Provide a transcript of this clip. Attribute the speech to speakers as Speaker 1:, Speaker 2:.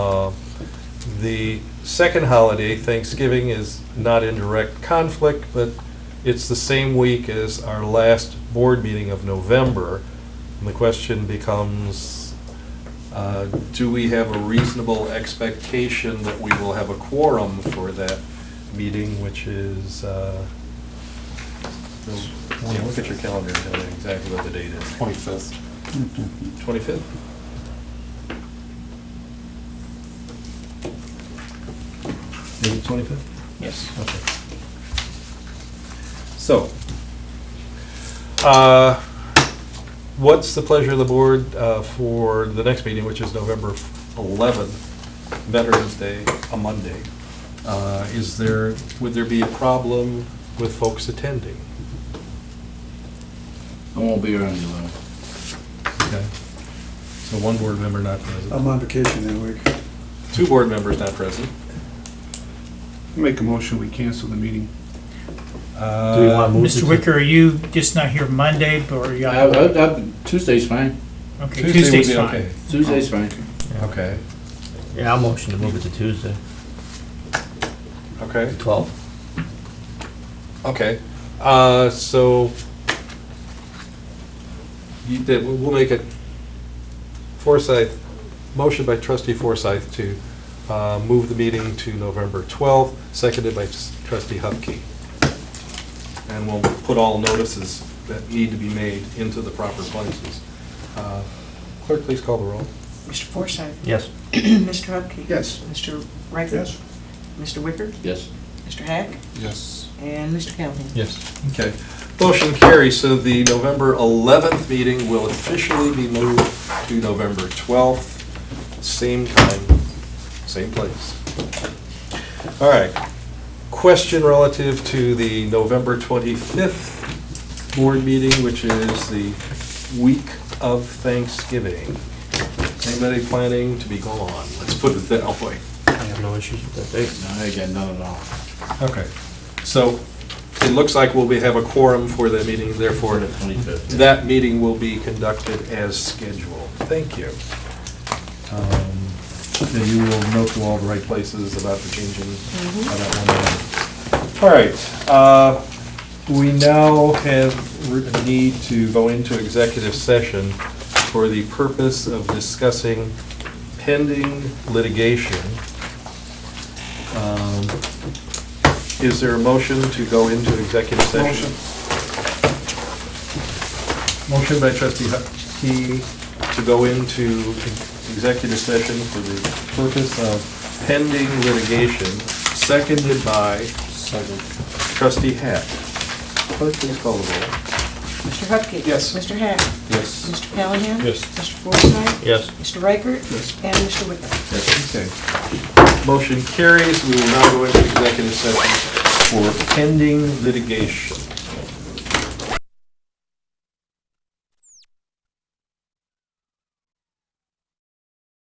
Speaker 1: Uh, The second holiday, Thanksgiving, is not in direct conflict, but it's the same week as our last board meeting of November. And the question becomes, uh, do we have a reasonable expectation that we will have a quorum for that meeting, which is, uh, yeah, look at your calendar and tell me exactly what the date is.
Speaker 2: 25th.
Speaker 1: 25th?
Speaker 3: Is it 25th?
Speaker 2: Yes.
Speaker 1: So, uh, what's the pleasure of the board uh, for the next meeting, which is November 11th, Veterans Day, a Monday? Uh, Is there, would there be a problem with folks attending?
Speaker 2: I won't be around you, Lou.
Speaker 1: Okay. So one board member not present,
Speaker 4: I'm on vacation that week.
Speaker 1: two board members not present.
Speaker 2: Make a motion, we cancel the meeting.
Speaker 1: Do
Speaker 5: Mr. Wicker, are you just not here Monday, but are you?
Speaker 6: I- I- I- Tuesday's fine.
Speaker 5: Okay,
Speaker 1: Tuesday would
Speaker 5: Tuesday's
Speaker 1: be
Speaker 5: fine.
Speaker 1: okay.
Speaker 6: Tuesday's
Speaker 2: Oh.
Speaker 6: fine.
Speaker 1: Okay,
Speaker 3: Yeah, I'll motion to move it to Tuesday,
Speaker 1: okay.
Speaker 3: 12th.
Speaker 1: Okay, uh, so you did, we'll make it Forsyth, motion by trustee Forsyth to uh, move the meeting to November 12th, seconded by trustee Hupkey. And we'll put all notices that need to be made into the proper places. Uh, Clerk, please call the roll.
Speaker 7: Mr. Forsyth?
Speaker 3: Yes.
Speaker 7: Mr. Hupkey?
Speaker 2: Yes.
Speaker 7: Mr. Riker? Mr. Wicker?
Speaker 6: Yes.
Speaker 7: Mr. Hack?
Speaker 2: Yes.
Speaker 7: And Mr. Callahan?
Speaker 1: Yes. Okay. Motion carries, so the November 11th meeting will officially be moved to November 12th, same time, same place. All right. Question relative to the November 25th board meeting, which is the week of Thanksgiving. Anybody planning to be gone? Let's put it that way.
Speaker 3: I have no issues with that date.
Speaker 6: No, I got none at all.
Speaker 1: Okay. So it looks like we'll be, have a quorum for that meeting, therefore
Speaker 6: the 25th.
Speaker 1: that meeting will be conducted as scheduled. Thank you. Um, And you will note to all the right places about the changing of that one. item. All right, uh, we now have a need to go into executive session for the purpose of discussing pending litigation. Um, Is there a motion to go into executive session?
Speaker 2: Motion.
Speaker 1: Motion by trustee Hupkey to go into executive session for the purpose of pending litigation, seconded by
Speaker 2: Second.
Speaker 1: trustee Hack. Clerk, please call the roll.
Speaker 7: Mr. Hupkey?
Speaker 2: Yes.
Speaker 7: Mr. Hack?
Speaker 1: Yes.
Speaker 7: Mr. Callahan?
Speaker 1: Yes.
Speaker 7: Mr. Forsyth?
Speaker 3: Yes.
Speaker 7: Mr. Riker?
Speaker 2: Yes.
Speaker 7: And Mr. Wicker?
Speaker 1: Okay. Motion carries. We will now go into executive session for pending litigation.